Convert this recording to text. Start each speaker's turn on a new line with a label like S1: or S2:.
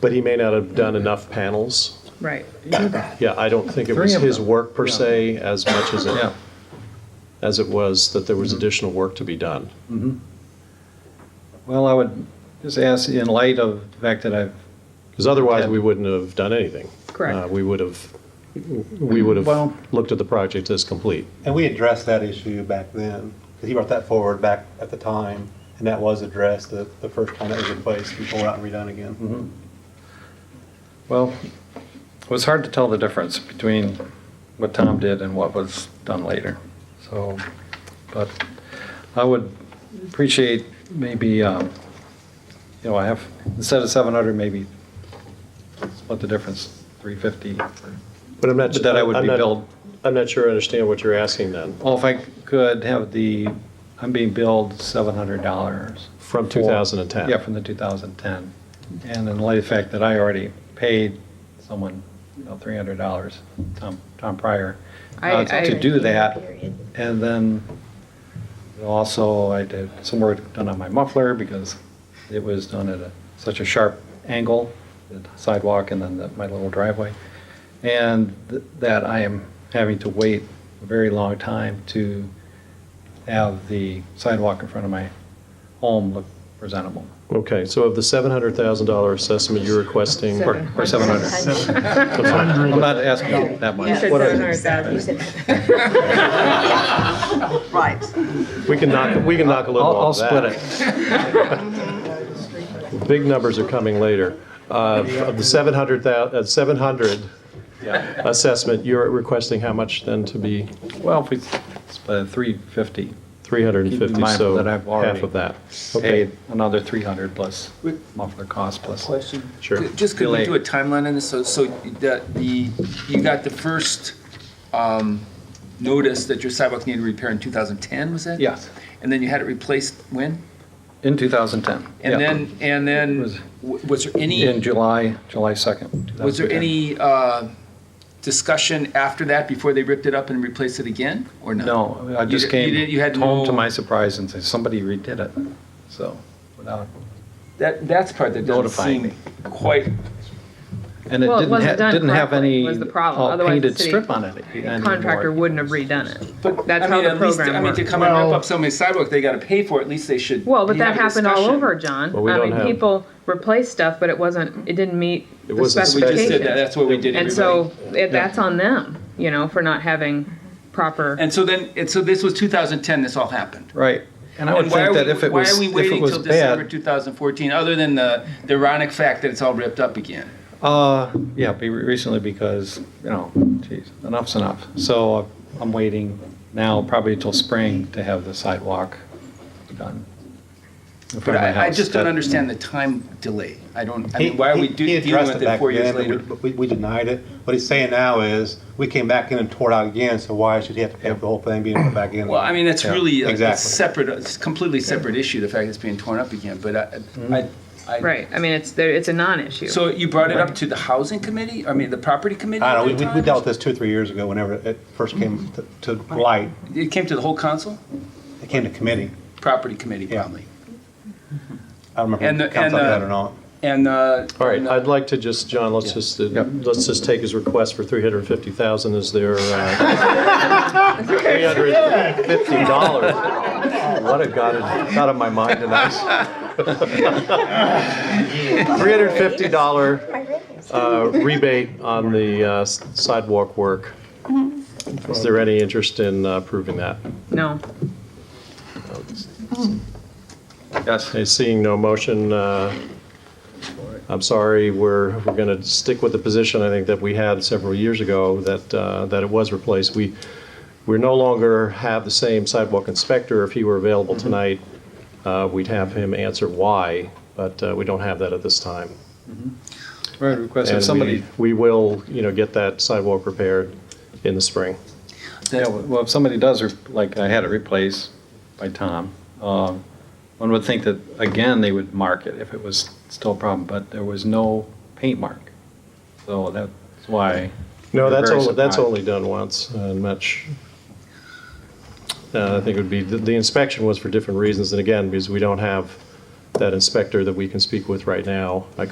S1: But he may not have done enough panels.
S2: Right.
S1: Yeah, I don't think it was
S3: Three of
S1: his
S3: them.
S1: work per se as much as it,
S3: Yeah.
S1: as it was that there was
S3: Mm-hmm.
S1: additional work to be done.
S3: Well, I would just ask, in light of the fact that I've,
S1: Because otherwise,
S3: Yeah.
S1: we wouldn't have done anything.
S2: Correct.
S1: Uh, We would have, we would
S3: Well-
S1: have looked at the project as complete.
S4: And we addressed that issue back then, because he brought that forward back at the time, and that was addressed the, the first time that was replaced and pulled out and redone again.
S3: well, it was hard to tell the difference between what Tom did and what was done later. So, but I would appreciate maybe, um, you know, I have, instead of 700, maybe split the difference, 350.
S1: But I'm not.
S3: But that I would
S1: I'm
S3: be
S1: not-
S3: billed.
S1: I'm not sure I understand what you're asking then.
S3: Well, if I could have the, I'm being billed $700.
S1: From
S3: for-
S1: 2010.
S3: Yeah, from the 2010. And in light of the fact that I already paid someone, you know, $300, Tom, Tom Pryor,
S2: I-
S3: uh,
S2: I-
S3: to do that. And then also I did some work done on my muffler because it was done at a- such a sharp angle, the sidewalk and then the- my little driveway. And th- that I am having to wait a very long time to have the sidewalk in front of my home look presentable.
S1: Okay, so of the $700,000 assessment you're requesting.
S3: Or or 700. I'm not asking that much.
S2: You said
S1: What are-
S2: 700,000.
S5: You said- Right.
S1: We can knock, we can knock a
S3: I'll,
S1: little
S3: I'll
S1: off that.
S3: split it.
S1: Big numbers are coming later. Uh, Of the 700, uh, 700
S3: Yeah.
S1: assessment, you're requesting how much then to be
S3: Well, if we split it 350, Keep in
S1: 350,
S3: mind
S1: so
S3: that I've already
S1: half of that. Okay,
S3: paid another 300 plus muffler cost plus.
S6: Question.
S1: Sure.
S6: Ju- Just could
S3: Delay.
S6: we do a timeline on this? So, so that the, you got the first um, notice that your sidewalk needed repair in 2010, was that?
S3: Yes,
S6: And then you had it replaced when?
S3: in 2010. yeah.
S6: And then, and
S3: It
S6: then,
S3: was-
S6: w- was there
S3: In
S6: any,
S3: July, July 2nd.
S6: was there
S3: 2010.
S6: any uh, discussion after that, before they ripped it up and replaced it again, or not?
S3: No, I
S6: You
S3: just
S6: di- you
S3: came
S6: didn't- you had
S3: home to
S6: no-
S3: my surprise and said, somebody redid it. So, without,
S6: That, that's the part that doesn't
S3: Notifying
S6: seem quite,
S3: and it
S2: Well, it
S3: didn't,
S2: wasn't
S3: ha-
S2: done
S3: didn't have
S2: correctly
S3: any
S2: was the problem.
S3: all
S2: Otherwise, the
S3: painted
S2: city
S3: strip on it. anymore.
S2: Contractor wouldn't have redone it.
S6: but,
S2: That's
S6: I
S2: how
S6: mean,
S2: the
S6: at least,
S2: program
S6: I mean, to
S2: works.
S6: come and rip
S4: Well-
S6: up somebody's sidewalk, they gotta pay for it, at least they should.
S2: Well, but
S6: you have
S2: that
S6: a
S2: happened all
S6: discussion.
S2: over, John.
S1: Well, we
S2: I
S1: don't
S2: mean,
S1: have-
S2: people replaced stuff, but it wasn't, it didn't meet
S1: It
S2: the
S1: wasn't
S6: We just did that,
S2: specifications.
S6: that's what we did, everybody.
S2: And so it- that's on them, you know, for not having proper,
S6: And so then, and so this was 2010, this all happened.
S3: Right. And I would
S6: And why
S3: think
S6: are
S3: that
S6: we-
S3: if it
S6: why
S3: was,
S6: are we
S3: if it
S6: waiting
S3: was
S6: till December
S3: bad,
S6: 2014, other than the the ironic fact that it's all ripped up again?
S3: uh, yeah, be- recently because, you know, geez, enough's enough. So uh, I'm waiting now probably till spring to have the sidewalk done. in front
S6: But
S3: of my
S6: I I
S3: house.
S6: just don't
S3: That-
S6: understand the time delay. I don't, I
S4: He-
S6: mean, why are we
S4: he-
S6: do-
S4: he
S6: dealing
S4: addressed
S6: with it
S4: back
S6: four years
S4: then,
S6: later?
S4: but We, we denied it. What he's saying now is, we came back in and tore it out again, so why should he have to pay for the whole thing being put back in?
S6: Well, I mean, that's
S3: Yeah,
S6: really a- a
S4: exactly.
S6: separate, it's a completely separate issue, the fact it's being torn up again, but I- I, I.
S2: right, I mean, it's, there- it's a non-issue.
S6: So you brought it up to the housing committee, I mean, the property committee?
S4: I
S6: at
S4: don't know,
S6: that
S4: we, we
S6: time?
S4: dealt with this two, or three years ago, whenever it first came to- to light,
S6: It came to the whole council?
S4: it came to committee.
S6: Property committee,
S4: Yeah.
S6: probably.
S4: I don't
S6: And
S4: remember
S6: the-
S4: if it counts on
S6: and the-
S4: that or not.
S6: And. uh,
S1: all right,
S6: and, uh,
S1: I'd like to just, John, let's just, uh, let's just take his request for 350,000 as their, uh, $350. What a got it out of my mind tonight. $350 uh, rebate on the uh, s- sidewalk work. Is there any interest in uh, approving that?
S2: No,
S3: Yes.
S1: Okay, seeing no motion, uh, I'm sorry, we're, we're going to stick with the position I think that we had several years ago, that, uh, that it was replaced. We, we no longer have the same sidewalk inspector. If he were available
S3: Mm-hmm.
S1: tonight, uh, we'd have him answer why, but uh, we don't have that at this time.
S3: Right, request
S1: And
S3: if
S1: we-
S3: somebody,
S1: We will, you know, get that sidewalk repaired in the spring.
S3: yeah, well, if somebody does, re- like I had it replaced by Tom, um, one would think that, again, they would mark it if it was still a problem, but there was no paint mark. So that's why.
S1: No,
S3: we're
S1: that's
S3: very
S1: only, that's
S3: surprised.
S1: only done once, and much, uh, I think it would be, the- the inspection was for different reasons, and again, because we don't have that inspector that we can speak with right now. I